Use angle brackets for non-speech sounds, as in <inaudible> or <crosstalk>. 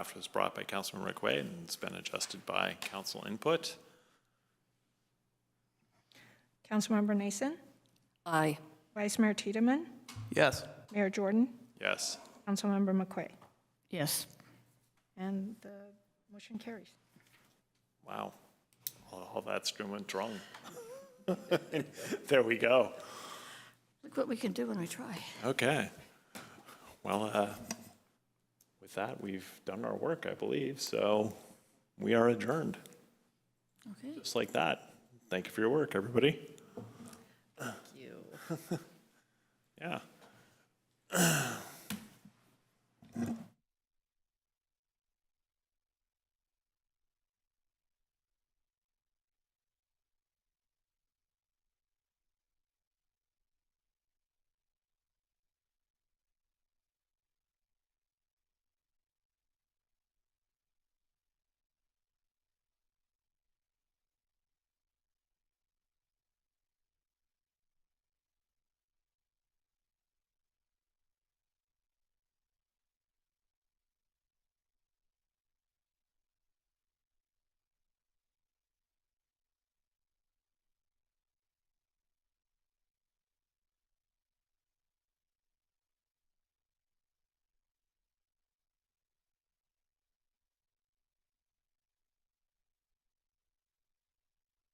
draft was brought by Councilman Rick Way and it's been adjusted by council input. Councilmember Nason, Aye. Vice Mayor Tiedemann, Yes. Mayor Jordan, Yes. Councilmember McQuay. Yes. And the motion carries. Wow. All all that screw went wrong. <laughs> There we go. Look what we can do when we try. Okay. Well, uh, with that, we've done our work, I believe, so we are adjourned, Okay. just like that. Thank you for your work, everybody. <laughs> Thank you. Yeah.